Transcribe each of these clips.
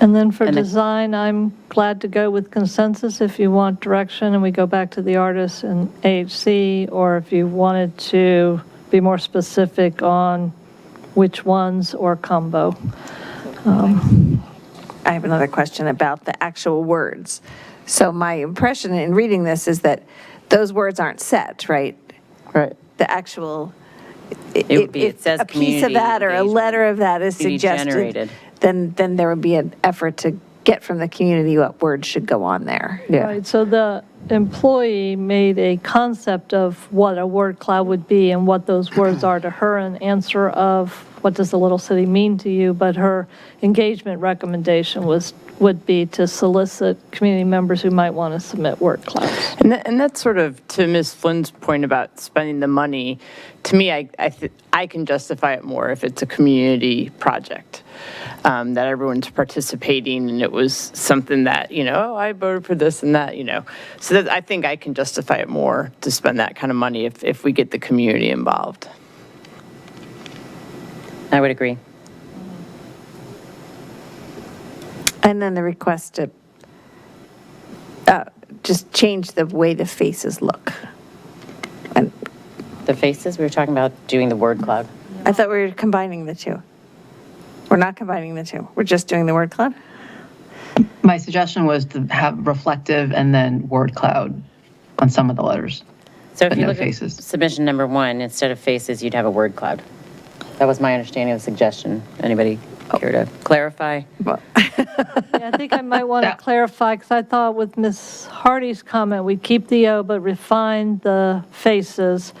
And then for And the- design, I'm glad to go with consensus if you want direction and we go back to the artists and AHC, or if you wanted to be more specific on which ones or combo. I have another question about the actual words. So my impression in reading this is that those words aren't set, right? Right. The actual. It would be- it if says A piece of community that or a engagement. letter of that is Community suggested, generated. then, then there would be an effort to get from the community what words should go on there. Yeah. Right, so the employee made a concept of what a word cloud would be and what those words are to her, an answer of, what does the little city mean to you? But her engagement recommendation was, would be to solicit community members who might want to submit word clouds. And, that, and that's sort of to Ms. Flynn's point about spending the money. To me, I, I, th- I can justify it more if it's a community project um, that everyone's participating and it was something that, you know, oh, I voted for this and that, you know. So that, I think I can justify it more to spend that kind of money if, if we get the community involved. I would agree. And then the request to uh, just change the way the faces look. And The faces, we were talking about doing the word cloud. I thought we were combining the two. We're not combining the two. We're just doing the word cloud. My suggestion was to have reflective and then word cloud on some of the letters. So if But you no look at faces. submission number one, instead of faces, you'd have a word cloud. That was my understanding of the suggestion. Anybody Oh. care to clarify? Yeah, I think I might want to Yeah. clarify, because I thought with Ms. Hardy's comment, we'd keep the O, but refine the faces.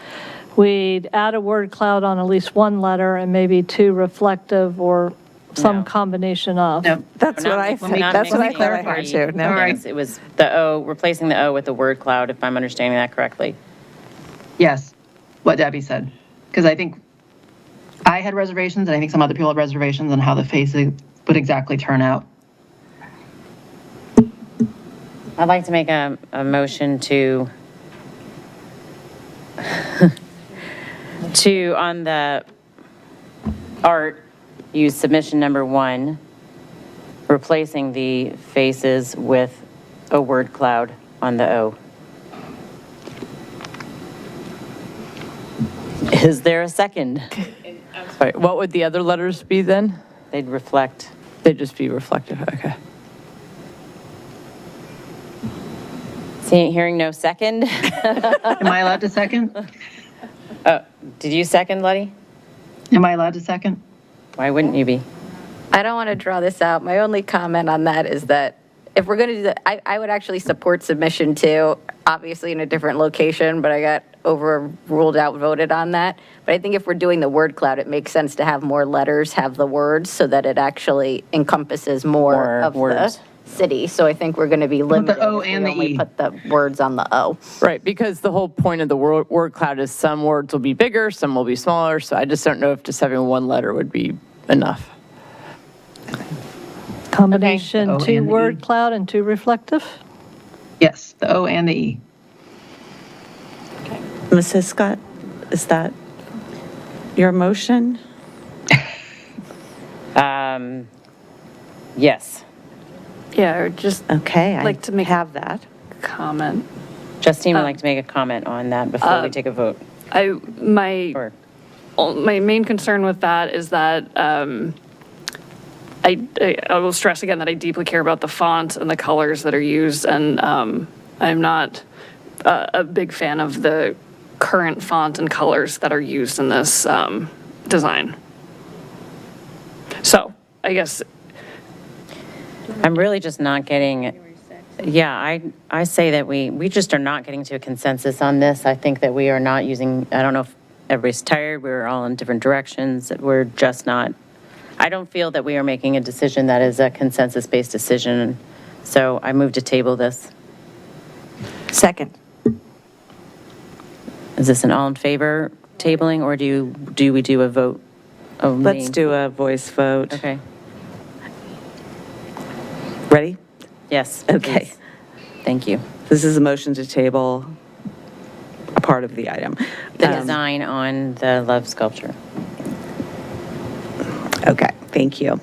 We'd add a word cloud on at least one letter and maybe two reflective or some No. combination of. No, That's We're what not I, mix- we're think- not that's what I mixing thought I heard parties. too. No. All right. Yes, It was the O, replacing the O with the word cloud, if I'm understanding that correctly. yes, what Debbie said. Because I think I had reservations, and I think some other people had reservations on how the faces would exactly turn out. I'd like to make a, a motion to, to, on the art, use submission number one, replacing the faces with a word cloud on the O. Is there a second? All right, what would the other letters be then? They'd reflect. They'd just be reflective, okay. Seeing, hearing no second? Am I allowed to second? Did you second, Letty? Am I allowed to second? Why wouldn't you be? I don't want to draw this out. My only comment on that is that if we're going to do that, I, I would actually support submission two, obviously in a different location, but I got overruled out, voted on that. But I think if we're doing the word cloud, it makes sense to have more letters, have the words, so that it actually encompasses More more of words. the city. So I think we're going to be limited. O if we and the only E. Put the words on the O. Right, because the whole point of the word, word cloud is some words will be bigger, some will be smaller, so I just don't know if just having one letter would be enough. Combination, O two and E. word cloud and two reflective. Yes, the O and the E. Mrs. Scott, is that your motion? Um, Yes. Yeah, or just Okay, I Like to make- have that. comment. Justine Oh. would like to make a comment on that before Um, we take a vote. I, my, Or my main concern with that is that um, I, I- I will stress again that I deeply care about the font and the colors that are used, and um, I'm not uh, a big fan of the current font and colors that are used in this um, design. So I guess I'm really just not getting, yeah, I, I say that we, we just are not getting to a consensus on this. I think that we are not using, I don't know if everybody's tired, we're all in different directions, that we're just not, I don't feel that we are making a decision that is a consensus-based decision. So I move to table this. Second. Is this an all in favor tabling, or do you, do we do a vote? of Let's name? do a voice vote. Okay, Ready? yes. Okay. please. Thank you. This is a motion to table a part of the item. The Um, design on the love sculpture. Okay, thank you.